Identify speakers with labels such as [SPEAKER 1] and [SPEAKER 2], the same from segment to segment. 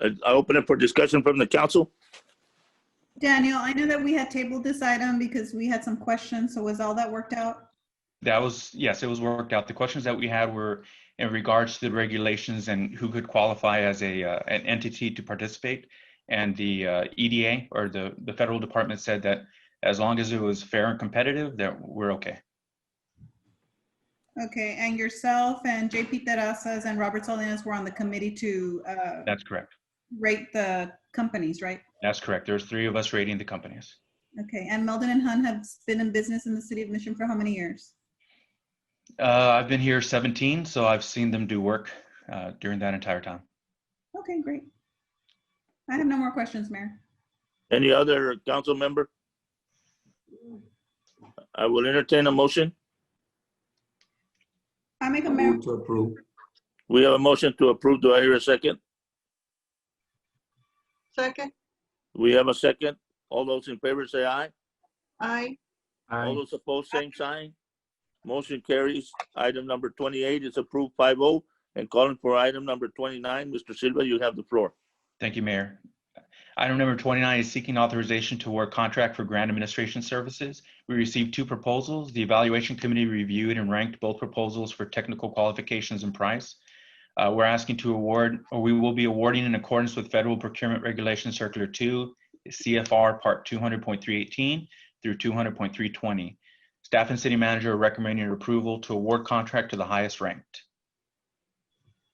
[SPEAKER 1] I I open it for discussion from the council.
[SPEAKER 2] Daniel, I know that we had tabled this item because we had some questions, so was all that worked out?
[SPEAKER 3] That was, yes, it was worked out. The questions that we had were in regards to the regulations and who could qualify as a, uh, an entity to participate. And the uh, EDA or the, the federal department said that as long as it was fair and competitive, that we're okay.
[SPEAKER 2] Okay, and yourself and JP Terrazas and Robert Salinas were on the committee to uh,
[SPEAKER 3] That's correct.
[SPEAKER 2] rate the companies, right?
[SPEAKER 3] That's correct. There's three of us rating the companies.
[SPEAKER 2] Okay, and Meldon and Hun have been in business in the city of Mission for how many years?
[SPEAKER 3] Uh, I've been here 17, so I've seen them do work uh, during that entire time.
[SPEAKER 2] Okay, great. I have no more questions, Mayor.
[SPEAKER 1] Any other council member? I will entertain a motion.
[SPEAKER 2] I make a mayor,
[SPEAKER 4] Move to approve.
[SPEAKER 1] We have a motion to approve. Do I hear a second?
[SPEAKER 5] Second,
[SPEAKER 1] We have a second. All those in favor say aye.
[SPEAKER 5] aye.
[SPEAKER 1] All
[SPEAKER 4] Aye.
[SPEAKER 1] those opposed, same sign. Motion carries. Item number 28 is approved 5-0. And calling for item number 29, Mr. Silva, you have the floor.
[SPEAKER 3] Thank you, Mayor. Item number 29 is seeking authorization to award contract for grant administration services. We received two proposals. The evaluation committee reviewed and ranked both proposals for technical qualifications and price. Uh, We're asking to award, or we will be awarding in accordance with Federal Procurement Regulation Circular 2, CFR Part 200.318 through 200.320. Staff and city manager are recommending approval to award contract to the highest ranked.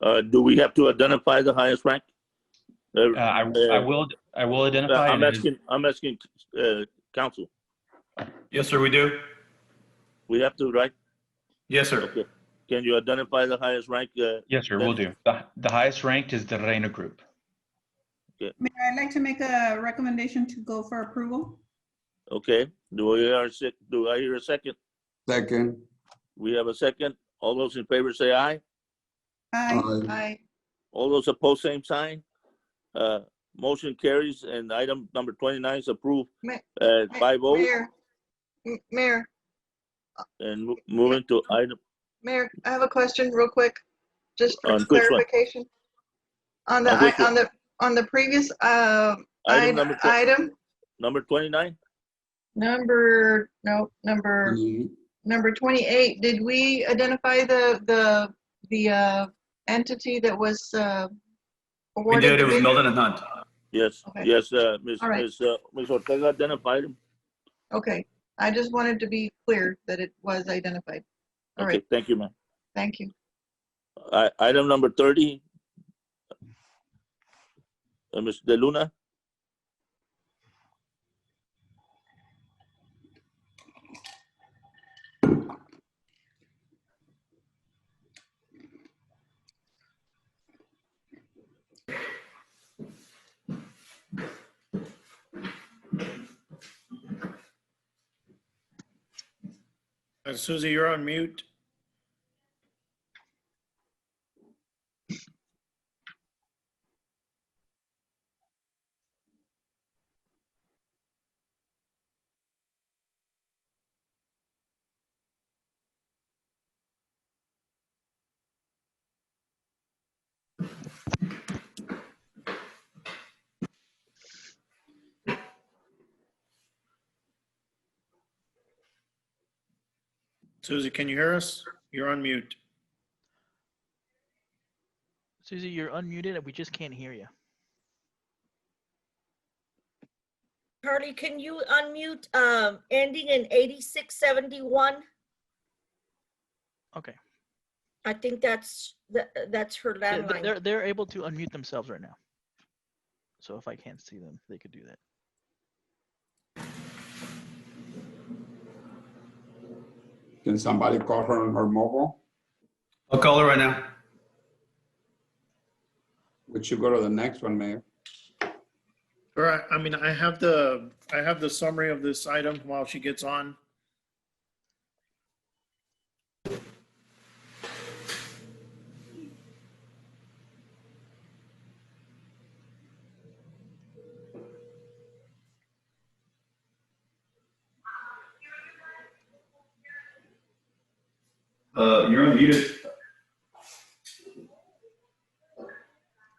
[SPEAKER 1] Uh, Do we have to identify the highest rank? Uh,
[SPEAKER 3] Uh, I I will, I will identify.
[SPEAKER 1] I'm
[SPEAKER 3] it as-
[SPEAKER 1] asking, I'm asking uh, council.
[SPEAKER 6] Yes, sir, we do.
[SPEAKER 1] We have to, right?
[SPEAKER 6] Yes, sir.
[SPEAKER 1] Okay. Can you identify the highest rank? uh,
[SPEAKER 3] Yes, sir, we will do. The, the highest ranked is the Reina Group.
[SPEAKER 2] Mayor, I'd like to make a recommendation to go for approval.
[SPEAKER 1] Okay, do I hear, a sec- do I hear a second?
[SPEAKER 4] Second.
[SPEAKER 1] We have a second. All those in favor say aye.
[SPEAKER 2] Aye.
[SPEAKER 4] Aye.
[SPEAKER 5] Aye.
[SPEAKER 1] All those opposed, same sign. Uh, Motion carries and item number 29 is approved uh,
[SPEAKER 5] Ma-
[SPEAKER 1] at
[SPEAKER 5] Ma-
[SPEAKER 1] 5-0.
[SPEAKER 5] Mayor, M- Mayor,
[SPEAKER 1] And mo- moving to item,
[SPEAKER 5] Mayor, I have a question real quick, just for
[SPEAKER 1] On which one?
[SPEAKER 5] clarification. On the,
[SPEAKER 1] On which
[SPEAKER 5] i- on the, on the previous, uh,
[SPEAKER 1] item number
[SPEAKER 5] i-
[SPEAKER 1] tw-
[SPEAKER 5] item,
[SPEAKER 1] number 29?
[SPEAKER 5] number, no, number,
[SPEAKER 4] Aye.
[SPEAKER 5] number 28, did we identify the, the, the uh entity that was uh
[SPEAKER 6] We
[SPEAKER 5] awarded?
[SPEAKER 6] did. It
[SPEAKER 5] the
[SPEAKER 6] was
[SPEAKER 5] bid?
[SPEAKER 6] Milton and Hunt.
[SPEAKER 1] Yes,
[SPEAKER 5] Okay.
[SPEAKER 1] yes, uh, Ms.
[SPEAKER 5] All right.
[SPEAKER 1] Ms. uh, Ms. Ortega identified him.
[SPEAKER 5] Okay, I just wanted to be clear that it was identified. All
[SPEAKER 1] Okay,
[SPEAKER 5] right,
[SPEAKER 1] thank you, ma'am.
[SPEAKER 5] thank you.
[SPEAKER 1] I- Item number 30. Uh, Ms. De Luna?
[SPEAKER 7] Uh, Susie, you're on mute. Susie, can you hear us? You're on mute.
[SPEAKER 8] Susie, you're unmuted and we just can't hear you.
[SPEAKER 9] Carly, can you unmute, um, ending in eighty-six seventy-one?
[SPEAKER 8] Okay.
[SPEAKER 9] I think that's, tha- that's her
[SPEAKER 8] They- they-
[SPEAKER 9] landline.
[SPEAKER 8] They're, they're able to unmute themselves right now. So if I can't see them, they could do that.
[SPEAKER 4] Can somebody call her on her mobile?
[SPEAKER 6] I'll call her right now.
[SPEAKER 4] We should go to the next one, Mayor.
[SPEAKER 7] All right, I mean, I have the, I have the summary of this item while she gets on.
[SPEAKER 6] Uh, you're unmuted.